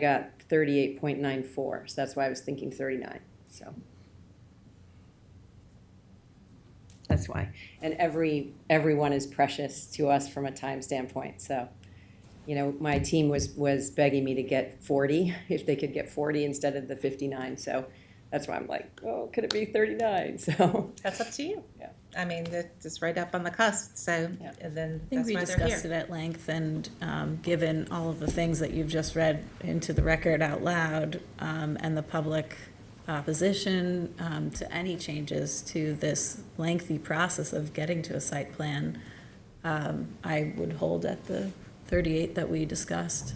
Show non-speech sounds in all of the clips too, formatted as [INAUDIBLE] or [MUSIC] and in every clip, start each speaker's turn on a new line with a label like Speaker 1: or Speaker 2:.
Speaker 1: got thirty-eight point nine four, so that's why I was thinking thirty-nine, so. That's why, and every, everyone is precious to us from a time standpoint, so. You know, my team was, was begging me to get forty, [LAUGHS] if they could get forty instead of the fifty-nine, so that's why I'm like, oh, could it be thirty-nine, [LAUGHS] so.
Speaker 2: That's up to you.
Speaker 1: Yeah.
Speaker 2: I mean, that- it's right up on the cusp, so,
Speaker 1: Yeah.
Speaker 2: and then
Speaker 3: I think
Speaker 2: that's
Speaker 3: we
Speaker 2: why they're
Speaker 3: discussed
Speaker 2: here.
Speaker 3: it at length, and um, given all of the things that you've just read into the record out loud, um, and the public opposition um, to any changes to this lengthy process of getting to a site plan, um, I would hold at the 38 that we discussed.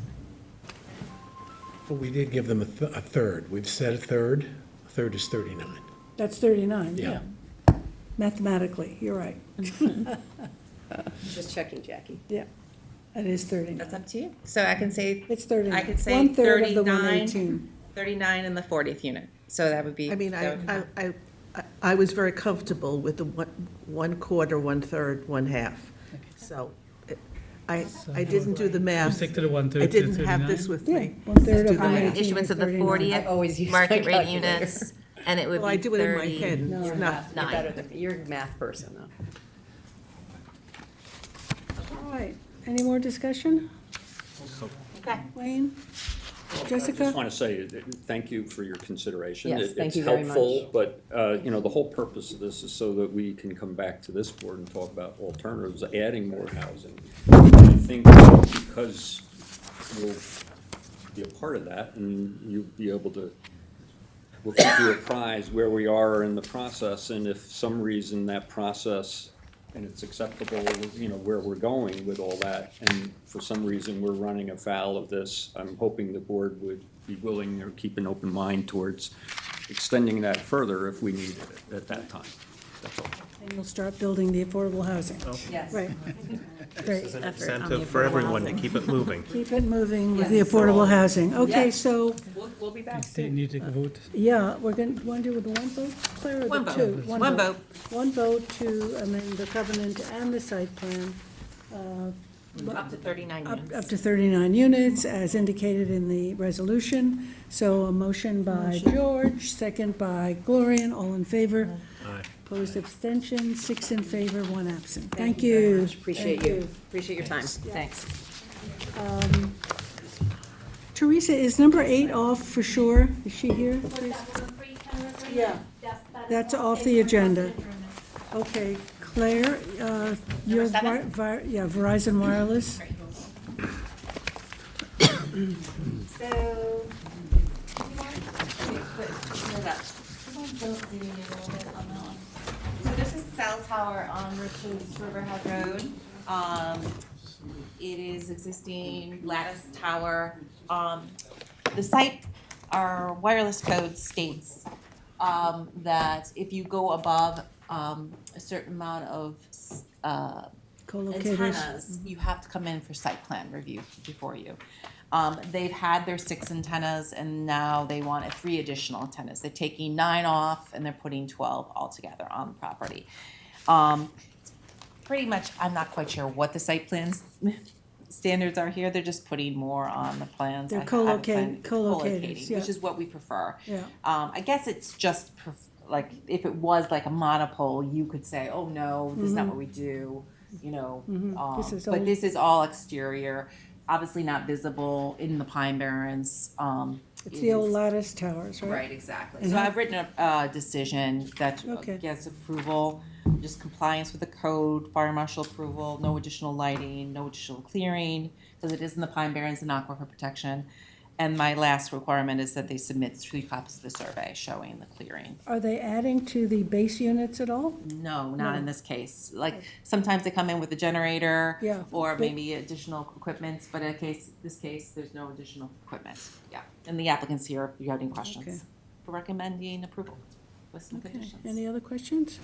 Speaker 4: But we did give them a, th- a third. We've said a third. A third is 39.
Speaker 5: That's 39,
Speaker 4: Yeah.
Speaker 5: yeah. Mathematically, you're right.
Speaker 1: Just checking, Jackie.
Speaker 5: Yeah, that is
Speaker 2: That's
Speaker 5: 39.
Speaker 2: up to you. So I can say
Speaker 5: It's 39.
Speaker 2: I could say
Speaker 5: One-third of the
Speaker 2: 39.
Speaker 5: 118.
Speaker 2: thirty-nine in the fortieth unit, so that would be.
Speaker 6: I mean, I,
Speaker 2: that would-
Speaker 6: I, I, I was very comfortable with the one, one quarter, one third, one half. So it- I, I didn't do the math.
Speaker 7: Stick to the one third
Speaker 6: I
Speaker 7: to
Speaker 6: didn't have this
Speaker 7: 39?
Speaker 6: with
Speaker 5: Yeah,
Speaker 6: me.
Speaker 5: one-third of the
Speaker 6: Just do the math.
Speaker 5: 118
Speaker 8: issuance of the
Speaker 5: 40.
Speaker 1: I always use
Speaker 8: fortieth
Speaker 1: my
Speaker 8: market rate
Speaker 1: calculator.
Speaker 8: units,
Speaker 1: [LAUGHS]
Speaker 8: and it would be thirty.
Speaker 6: Well, I do it in my head. It's not,
Speaker 1: You're
Speaker 8: Nine.
Speaker 1: better than me. You're a math person, though.
Speaker 5: All right, any more discussion?
Speaker 2: Okay.
Speaker 5: Wayne?
Speaker 9: I just
Speaker 5: Jessica?
Speaker 9: want to say, that- thank you for your consideration.
Speaker 1: Yes,
Speaker 9: It-
Speaker 1: thank you very
Speaker 9: It's helpful,
Speaker 1: much.
Speaker 9: but, uh, you know, the whole purpose of this is so that we can come back to this board and talk about alternatives, adding more housing. I think because you'll be a part of that, and you'll be able to, we'll keep you apprised where we are in the process, and if some reason that process, and it's acceptable, you know, where we're going with all that, and for some reason we're running afoul of this, I'm hoping the board would be willing or keep an open mind towards extending that further if we needed it at that time. That's all.
Speaker 5: And you'll start building the affordable housing.
Speaker 1: Yes.
Speaker 5: Right, great.
Speaker 3: Effort on the
Speaker 10: incentive for
Speaker 3: affordable
Speaker 10: everyone to
Speaker 3: housing. [LAUGHS]
Speaker 10: keep it moving.
Speaker 5: Keep it moving with the affordable housing. Okay,
Speaker 1: Yes.
Speaker 5: so,
Speaker 2: We'll, we'll be back
Speaker 7: They
Speaker 2: soon.
Speaker 7: need to vote.
Speaker 5: yeah, we're going, to want to do with the one vote, Claire, or
Speaker 2: One
Speaker 5: the
Speaker 2: vote.
Speaker 5: two?
Speaker 2: One vote.
Speaker 5: One vote to amend the covenant and the site plan uh,
Speaker 8: Up to thirty-nine
Speaker 5: Up,
Speaker 8: units.
Speaker 5: up to 39 units, as indicated in the resolution. So a motion by George, second by Gloria, all in favor.
Speaker 4: Aye.
Speaker 5: Opposed, abstention, six in favor, one absent. Thank you.
Speaker 1: Appreciate
Speaker 5: Thank
Speaker 1: you. Appreciate your time. Thanks.
Speaker 5: Teresa, is number eight off for sure? Is she here? Yeah. That's off the agenda. Okay, Claire, uh, you're, Vir- Vir- yeah, Verizon Wireless.
Speaker 8: So. So this is cell tower on Richards Riverhead Road. Um, it is existing lattice tower. Um, the site, our wireless code states, um, that if you go above, um, a certain amount of, s- uh,
Speaker 5: Co-locators.
Speaker 8: antennas, you have to come in for site plan review before you. Um, they've had their six antennas and now they want three additional antennas. They're taking nine off and they're putting twelve altogether on the property. Um, pretty much, I'm not quite sure what the site plans standards are here. They're just putting more on the plans.
Speaker 5: They're
Speaker 8: I haven't planned-
Speaker 5: co-locate- co-locators,
Speaker 8: co-locating, Which
Speaker 5: yeah.
Speaker 8: is what we prefer.
Speaker 5: Yeah.
Speaker 8: Um, I guess it's just pref- like, if it was like a monopole, you could say, oh, no, this is not what we do, you know. um,
Speaker 5: Mm-hmm. This is all-
Speaker 8: But this is all exterior, obviously not visible in the Pine Barrens. um,
Speaker 5: It's
Speaker 8: it
Speaker 5: the old
Speaker 8: is-
Speaker 5: lattice towers,
Speaker 8: Right, exactly. So I've written a, uh decision that
Speaker 5: Okay.
Speaker 8: gets approval, just compliance with the code, fire marshal approval, no additional lighting, no additional clearing, because it is in the Pine Barrens and aquifer protection. And my last requirement is that they submit three copies of the survey showing the clearing.
Speaker 5: Are they adding to the base units at all?
Speaker 8: No, not in this case. Like, sometimes they come in with a generator.
Speaker 5: Yeah,
Speaker 8: Or
Speaker 5: but-
Speaker 8: maybe additional equipment, but in a case, this case, there's no additional equipment. Yeah. And the applicants here, if you have any
Speaker 5: Okay.
Speaker 8: questions, recommending approval with some
Speaker 5: Okay,
Speaker 8: conditions.
Speaker 5: any other questions?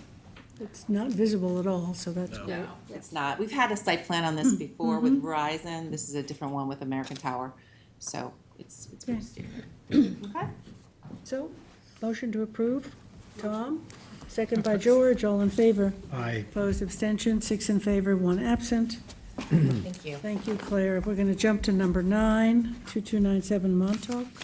Speaker 5: It's not visible at all, so that's great.
Speaker 8: No, it's not. We've had a site plan on
Speaker 5: Mm-hmm.
Speaker 8: this before with Verizon. This is a different one with American Tower. So it's, it's pretty standard. Okay?
Speaker 5: So, motion to approve, Tom, second by George, all in favor.
Speaker 4: Aye.
Speaker 5: Opposed, abstention, six in favor, one absent.
Speaker 2: Thank you.
Speaker 5: Thank you, Claire. We're going to jump to number nine, 2297 Montauk.